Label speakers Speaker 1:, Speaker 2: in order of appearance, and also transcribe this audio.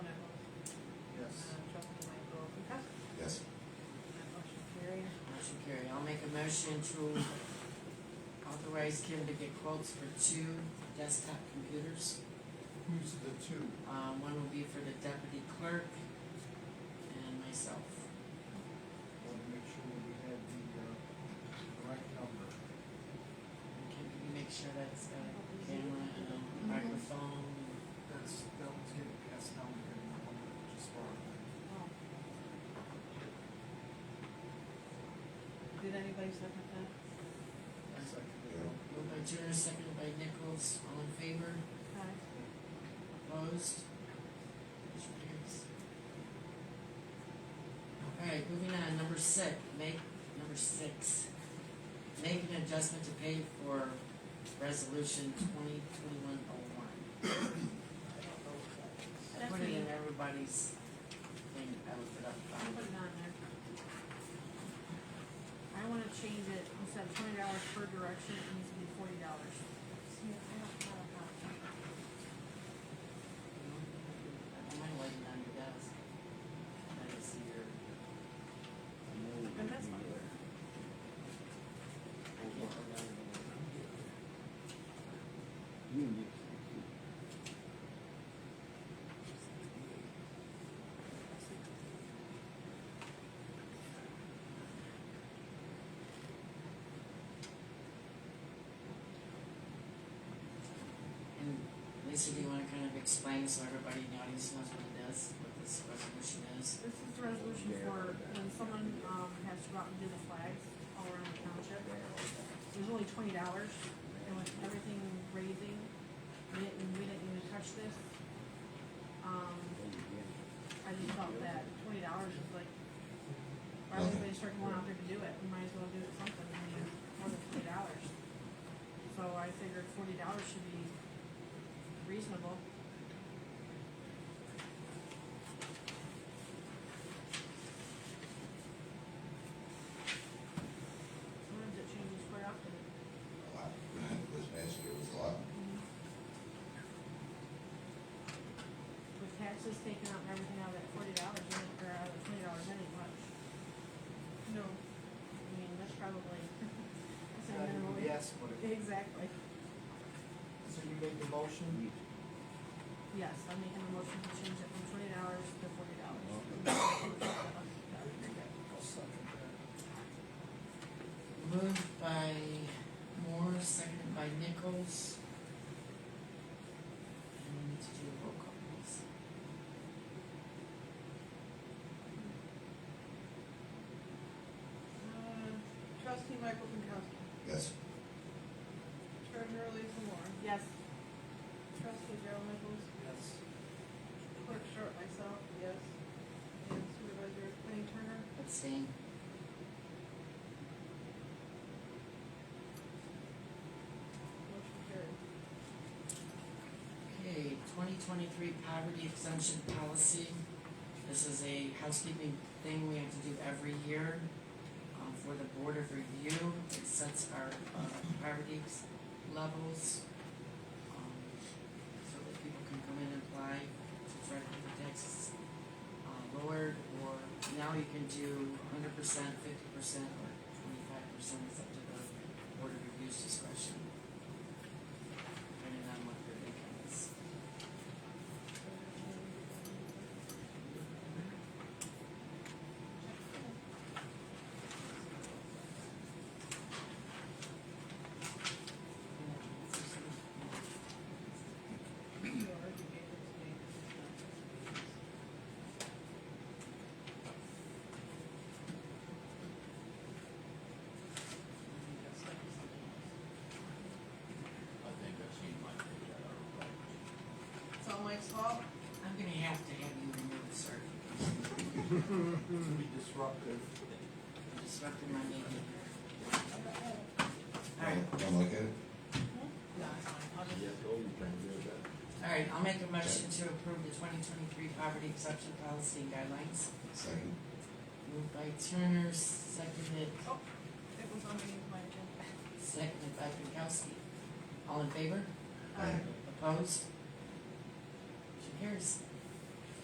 Speaker 1: a motion to authorize Kim to get quotes for two desktop computers.
Speaker 2: Who's the two?
Speaker 1: Um, one will be for the deputy clerk and myself.
Speaker 2: Want to make sure we had the, uh, right number.
Speaker 1: And Can you make sure that's got a camera and a microphone?
Speaker 2: That's, that one's getting passed down, we're getting one that just borrowed.
Speaker 3: Did anybody second that?
Speaker 2: That's like, you know,
Speaker 1: Moved by Turner, seconded by Nichols, all in favor?
Speaker 3: Aye.
Speaker 1: Opposed? Motion carries. Alright, moving on, number six, make, number six, make an adjustment to pay for resolution twenty twenty-one oh one. I
Speaker 3: That's
Speaker 1: put it
Speaker 3: me.
Speaker 1: in everybody's thing, I looked it up.
Speaker 3: I
Speaker 1: um,
Speaker 3: put it on there. I wanna change it, instead of twenty dollars per direction, it needs to be forty dollars.
Speaker 1: Am I waiting on your desk? I didn't see your,
Speaker 3: And that's fine.
Speaker 1: and Lisa, do you wanna kind of explain so everybody in the audience knows what it is, what this resolution is?
Speaker 3: This is the resolution for when someone, um, has to go out and do the flags all around the township. It was only twenty dollars, and with everything raising, we didn't, we didn't even touch this. Um, I just felt that twenty dollars is like, why would anybody start going out there to do it, we might as well do it something, I mean, more than twenty dollars. So I figured forty dollars should be reasonable. Sometimes it changes quite often.
Speaker 4: a lot. This past year was a lot.
Speaker 3: With taxes taken out and everything out of that forty dollars, or out of the twenty dollars, that ain't much. No. I mean, that's probably, that's a
Speaker 2: Not
Speaker 3: minimum.
Speaker 2: even yes, but it,
Speaker 3: Exactly,
Speaker 2: so you made the motion?
Speaker 3: yes, I'm making a motion to change it from twenty dollars to forty dollars. Uh,
Speaker 2: I'll second that.
Speaker 1: Moved by Moore, seconded by Nichols. And we need to do a roll call, please.
Speaker 5: Uh, Trustee Michael Pankowski.
Speaker 4: Yes,
Speaker 5: Treasurer Lisa Moore.
Speaker 3: Yes,
Speaker 5: Trustee Daryl Nichols.
Speaker 2: Yes.
Speaker 5: Clerk Sharp, myself, yes. And Supervisor Penny Turner.
Speaker 1: Abstain.
Speaker 5: Motion carried.
Speaker 1: Okay, twenty twenty-three poverty exemption policy. This is a housekeeping thing we have to do every year, um, for the board of review. It sets our, uh, poverty ex- levels, um, so that people can come in and apply to try to get the taxes, uh, lowered, or now you can do hundred percent, fifty percent, or twenty-five percent, it's up to the board of review's discretion, depending on what their income is.
Speaker 5: You already gave it to me.
Speaker 6: I think I've seen my page out of the
Speaker 5: It's all Mike's fault.
Speaker 1: I'm gonna have to have you remove, sir.
Speaker 2: To be disruptive.
Speaker 1: I'm disrupting my meeting here. Alright,
Speaker 4: don't don't look at it.
Speaker 1: no, it's fine. I'll just-
Speaker 6: Yes, oh, you can do that.
Speaker 1: Alright, I'll make a motion to approve the twenty twenty-three poverty exception policy and guidelines.
Speaker 4: Second,
Speaker 1: Moved by Turner, seconded,
Speaker 5: Oh, It was on me, my agenda.
Speaker 1: seconded by Pinkowski. All in favor?
Speaker 4: Aye.
Speaker 1: Opposed? Motion carries.